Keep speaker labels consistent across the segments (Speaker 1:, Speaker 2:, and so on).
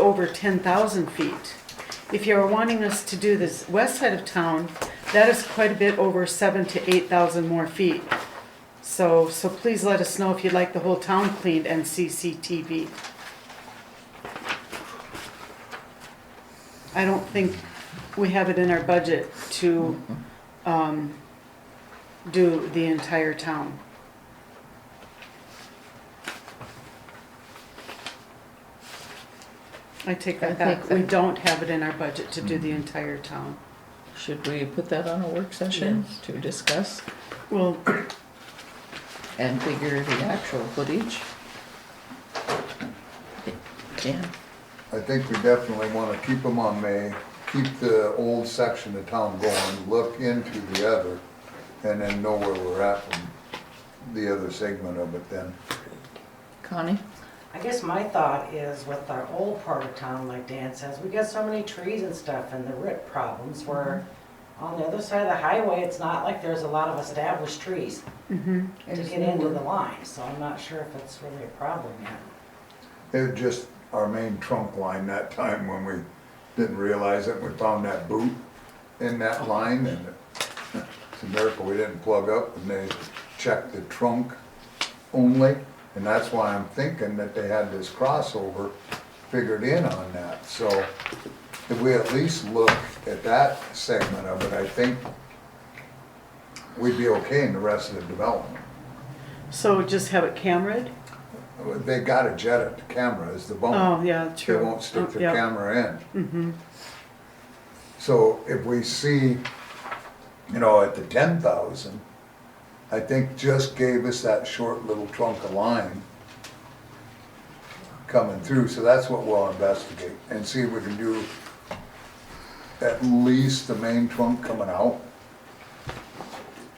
Speaker 1: over ten thousand feet. If you're wanting us to do this west side of town, that is quite a bit over seven to eight thousand more feet. So, so please let us know if you'd like the whole town cleaned and CCTV. I don't think we have it in our budget to, um, do the entire town. I take that
Speaker 2: I think
Speaker 1: back, we
Speaker 2: that-
Speaker 1: don't have it in our budget to do the entire town.
Speaker 2: Should we put that on a work session to discuss
Speaker 1: Well,
Speaker 2: and figure the actual footage? Yeah,
Speaker 3: I think we definitely want to keep them on May, keep the old section of town going, look into the other, and then know where we're at from the other segment of it then.
Speaker 2: Connie?
Speaker 4: I guess my thought is with our old part of town, like Dan says, we got so many trees and stuff and the root problems where on the other side of the highway, it's not like there's a lot of established trees
Speaker 1: mhm.
Speaker 4: to get into the line, so I'm not sure if it's really a problem yet.
Speaker 3: It was just our main trunk line that time when we didn't realize it, we found that boot in that line and it's a miracle we didn't plug up and they checked the trunk only. And that's why I'm thinking that they had this crossover figured in on that. So if we at least look at that segment of it, I think we'd be okay in the rest of the development.
Speaker 1: so just have it cameraed?
Speaker 3: They gotta jet it, the camera is the bone.
Speaker 1: Oh, yeah, true.
Speaker 3: They won't stick
Speaker 1: Oh,
Speaker 3: their
Speaker 1: yeah. Mm-hmm.
Speaker 3: camera in. So if we see, you know, at the ten thousand, I think just gave us that short little trunk of line coming through, so that's what we'll investigate and see if we can do at least the main trunk coming out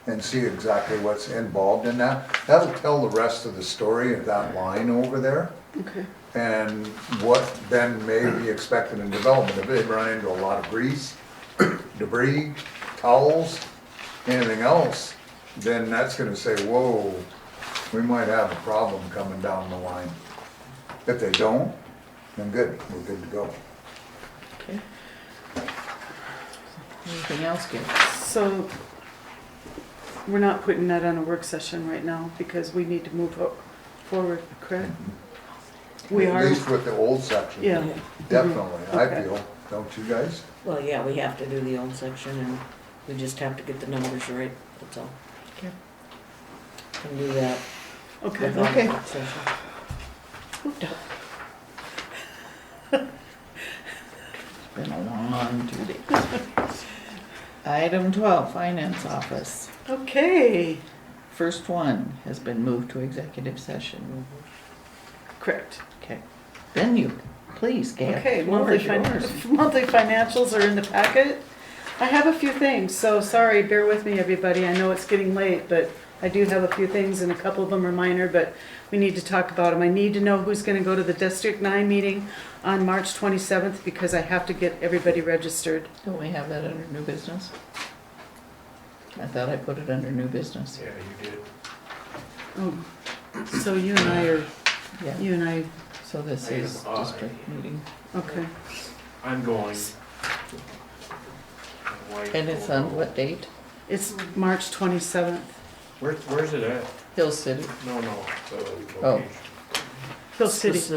Speaker 3: and see exactly what's involved in that. That'll tell the rest of the story of that line over there
Speaker 1: Okay.
Speaker 3: and what then may be expected in development, if they run into a lot of grease, debris, towels, anything else, then that's gonna say, whoa, we might have a problem coming down the line. If they don't, then good, we're good to go.
Speaker 2: Okay. Anything else, Gary?
Speaker 1: So we're not putting that on a work session right now because we need to move o- forward, correct? We
Speaker 3: At
Speaker 1: are,
Speaker 3: least with the old section.
Speaker 1: yeah,
Speaker 3: Definitely, I
Speaker 1: Okay.
Speaker 3: feel, don't you guys?
Speaker 5: Well, yeah, we have to do the old section and we just have to get the numbers right, that's all.
Speaker 2: Okay.
Speaker 5: Can do that.
Speaker 1: okay.
Speaker 5: without
Speaker 2: Okay.
Speaker 5: work session.
Speaker 2: Been a long two days. Item twelve, finance office.
Speaker 1: Okay,
Speaker 2: First one has been moved to executive session.
Speaker 1: correct.
Speaker 2: Okay. Then you, please, Gail.
Speaker 1: Okay,
Speaker 2: floor
Speaker 1: monthly
Speaker 2: is
Speaker 1: fin-
Speaker 2: yours.
Speaker 1: monthly financials are in the packet. I have a few things, so sorry, bear with me, everybody. I know it's getting late, but I do have a few things and a couple of them are minor, but we need to talk about them. I need to know who's gonna go to the District Nine meeting on March twenty-seventh because I have to get everybody registered.
Speaker 2: Don't we have that under new business? I thought I put it under new business.
Speaker 6: Yeah, you did.
Speaker 1: Oh, So you and I are,
Speaker 2: Yeah,
Speaker 1: you and I,
Speaker 2: so this
Speaker 6: Item
Speaker 2: is
Speaker 6: I.
Speaker 2: district meeting.
Speaker 1: okay.
Speaker 6: I'm going.
Speaker 2: And it's on what date?
Speaker 1: It's March twenty-seventh.
Speaker 6: Where, where's it at?
Speaker 2: Hill City.
Speaker 6: No, no, the
Speaker 2: Oh.
Speaker 6: location.
Speaker 1: Hill City.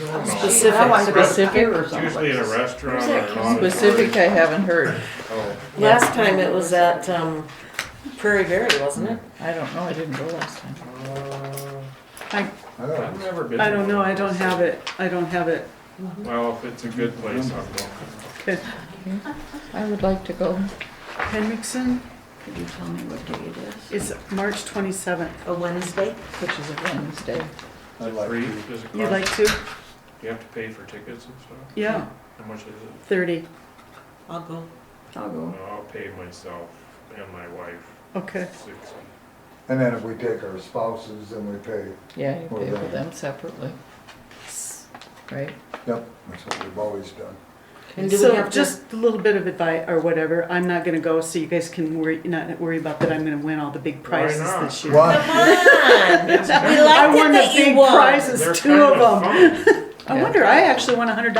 Speaker 6: No, no.
Speaker 5: Specific.
Speaker 4: I wanted to
Speaker 2: Specific.
Speaker 4: hear or
Speaker 6: It's
Speaker 4: something.
Speaker 6: Usually in a restaurant or an auditorium.
Speaker 2: Specific, I haven't heard.
Speaker 6: Oh,
Speaker 5: Last time it was at, um, Prairie Valley, wasn't it?
Speaker 2: I don't know, I didn't go last time.
Speaker 6: uh,
Speaker 1: I,
Speaker 3: I don't
Speaker 6: I've
Speaker 3: know.
Speaker 6: never been.
Speaker 1: I
Speaker 6: to
Speaker 1: don't
Speaker 6: one
Speaker 1: know,
Speaker 6: of
Speaker 1: I don't
Speaker 6: those.
Speaker 1: have it. I don't have it.
Speaker 6: Well, if it's a good place, I'm going.
Speaker 1: Okay.
Speaker 2: I would like to go.
Speaker 1: Henriksen
Speaker 7: Could you tell me what day it is?
Speaker 1: is March twenty-seventh.
Speaker 5: A Wednesday?
Speaker 2: Which is a Wednesday.
Speaker 3: I'd like
Speaker 6: Free,
Speaker 3: to-
Speaker 6: does it
Speaker 1: You'd like
Speaker 6: cost,
Speaker 1: to?
Speaker 6: do you have to pay for tickets and stuff?
Speaker 1: Yeah,
Speaker 6: How much is it?
Speaker 1: thirty.
Speaker 5: I'll go.
Speaker 7: I'll go.
Speaker 6: No, I'll pay myself and my wife
Speaker 1: Okay,
Speaker 6: sixty.
Speaker 3: And then if we take our spouses, then we pay,
Speaker 2: Yeah, you
Speaker 3: Or
Speaker 2: pay for
Speaker 3: Wednesday.
Speaker 2: them separately, right?
Speaker 3: yep, that's what we've always done.
Speaker 5: And do we
Speaker 1: so
Speaker 5: have to,
Speaker 1: just a little bit of advice or whatever. I'm not gonna go, so you guys can worry, not worry about that I'm gonna win all the big prizes
Speaker 6: not?
Speaker 1: this year.
Speaker 3: Why?
Speaker 5: come on! We liked
Speaker 1: I
Speaker 5: it
Speaker 1: won the
Speaker 5: that you
Speaker 1: big
Speaker 5: won.
Speaker 1: prizes, two of them. I
Speaker 2: Yeah.
Speaker 1: wonder, I actually won a hundred